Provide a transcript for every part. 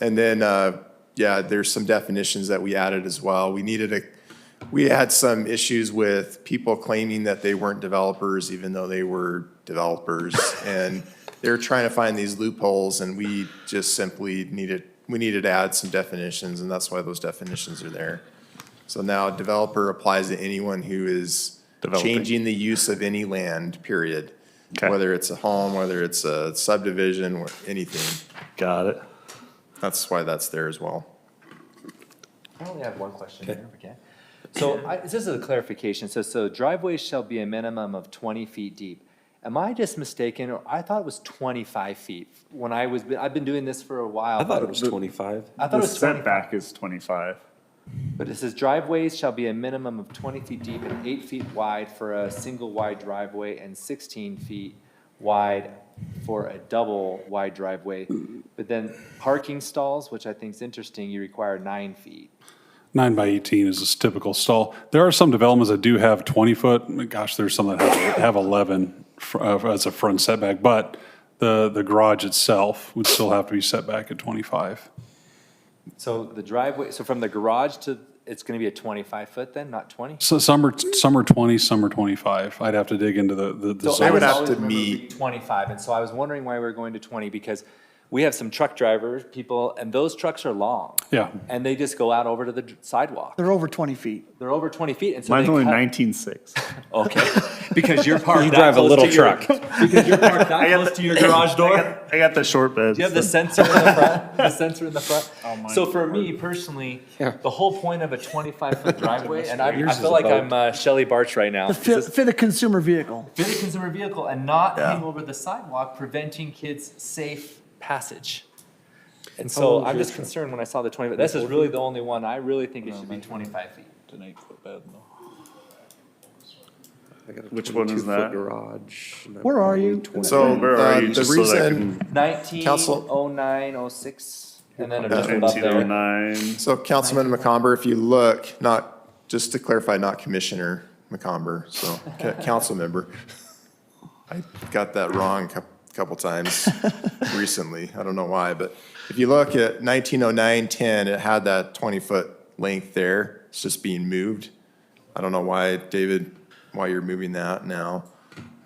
And then, uh, yeah, there's some definitions that we added as well. We needed a, we had some issues with people claiming that they weren't developers even though they were developers. And they're trying to find these loopholes and we just simply needed, we needed to add some definitions and that's why those definitions are there. So now developer applies to anyone who is Developing. changing the use of any land, period. Okay. Whether it's a home, whether it's a subdivision, or anything. Got it. That's why that's there as well. I only have one question here, okay? So I, this is a clarification, so, so driveways shall be a minimum of twenty feet deep. Am I just mistaken, or I thought it was twenty-five feet when I was, I've been doing this for a while. I thought it was 25. I thought it The was twenty, setback is 25. but it says driveways shall be a minimum of twenty feet deep and eight feet wide for a single wide driveway and sixteen feet wide for a double wide driveway. But then parking stalls, which I think is interesting, you require nine feet. Nine by 18 is a typical stall. There are some developments that do have 20 foot. Gosh, there's some that have, have 11 fr- uh, as a front setback, but the, the garage itself would still have to be set back at 25. So the driveway, so from the garage to, it's gonna be a twenty-five foot then, not twenty? So some are, some are 20, some are 25. I'd have to dig into the, the, the So I would was have zones. always to remember meet- being Twenty-five, and so I was wondering why we we're going to twenty, because we have some truck drivers, people, and those trucks are long. Yeah. And they just go out over to the dr- sidewalk. They're over 20 feet. They're over twenty feet, and so they Mine's only cut- 19.6. Okay. Because you're parked. You drive a little truck. Because you're parked that close to your garage I door. got, I got the short bed. Do you have the sensor in the front? The sensor in the front? mine- So for me personally, the whole point of a twenty-five foot driveway, and I, I Yours is feel like about- I'm uh, Shelley Barch right now. Fit, fit a consumer vehicle. fit a consumer vehicle and not hang over the sidewalk, preventing kids' safe passage. And so I'm just concerned when I saw the 20, but this is really the only one, I really think it should be 25 feet. Which one is that? Garage. and I Where are you? probably So 20. Where are uh, you, the just so that I reason, 19, Council- 09, 06, and then just above there. 1909. so Councilman McComber, if you look, not, just to clarify, not Commissioner McComber, so ca- council member. I got that wrong a couple times recently. I don't know why, but if you look at 1909, 10, it had that 20-foot length there. It's just being moved. I don't know why, David, why you're moving that now.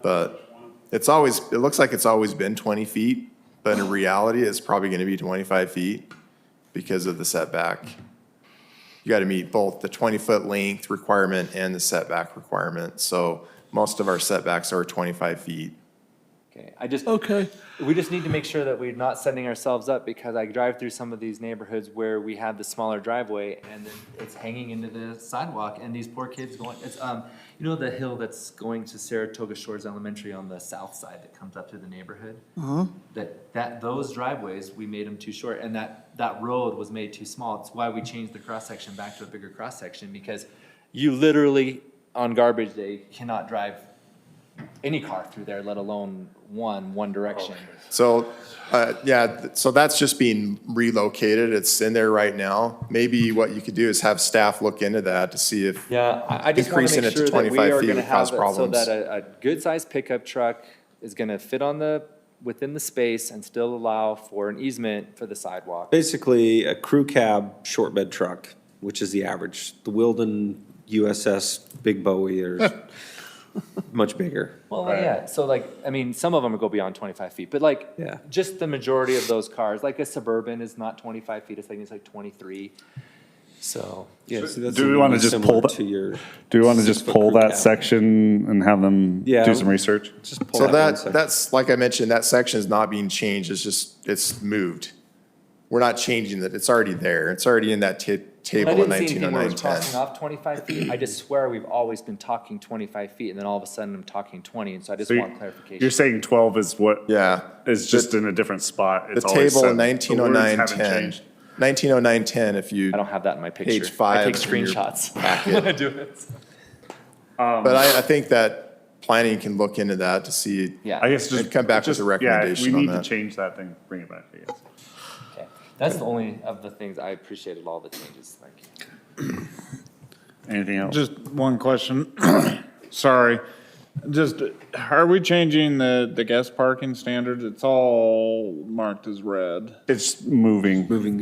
But it's always, it looks like it's always been 20 feet, but in reality, it's probably going to be 25 feet because of the setback. You got to meet both the 20-foot length requirement and the setback requirement. So most of our setbacks are 25 feet. Okay, I just, Okay. we just need to make sure that we're not setting ourselves up because I drive through some of these neighborhoods where we have the smaller driveway and then it's hanging into the sidewalk and these poor kids going, it's, um, you know the hill that's going to Saratoga Shores Elementary on the south side that comes up through the neighborhood? That, that, those driveways, we made them too short and that, that road was made too small. It's why we changed the cross-section back to a bigger cross-section because you literally, on garbage day, cannot drive any car through there, let alone one, one direction. So, uh, yeah, th- so that's just being relocated. It's in there right now. Maybe what you could do is have staff look into that to see if, Yeah, I, I just want to Increasing it make to sure that we 25 are feet going to would have cause it so problems. that a, a good-sized pickup truck is going to fit on the, within the space and still allow for an easement for the sidewalk. Basically, a crew cab, short bed truck, which is the average. The Wilden USS Big Bowie are much bigger. Well, yeah, so like, I mean, some of them go beyond twenty-five feet, but like, Yeah. just the majority of those cars, like a Suburban is not twenty-five feet, it's like, it's like twenty-three. So, Yeah, see, that's do we wanna just similar pull that- To your, Do we want to just Six-foot pull crew that cab. section and have them Yeah. do some research? just pull so that one that, section. that's, like I mentioned, that section is not being changed. It's just, it's moved. We're not changing it. It's already there. It's already in that ta- I table in didn't see anything where 1909, we're crossing off twenty-five feet, I just swear we've always been talking twenty-five feet, and then all of a sudden I'm talking twenty, and so I just So you- want clarification. You're saying 12 is what? Yeah. Is just in a different spot. The It's always table oh in set. The words 1909, haven't 10, changed. 1909, 10, if you. I don't have that in my picture. Page five I take in your screenshots. packet. when I do it. But I, I think that planning can look into that to see. Yeah. I guess just. And come back with just- a yeah, if recommendation on We need to that. change that thing, bring it back, I guess. Okay. That's the only of the things I appreciated all the changes. Thank you. Anything else? Just one question. Sorry. Just, are we changing the, the guest parking standards? It's all marked as red. It's moving. Moving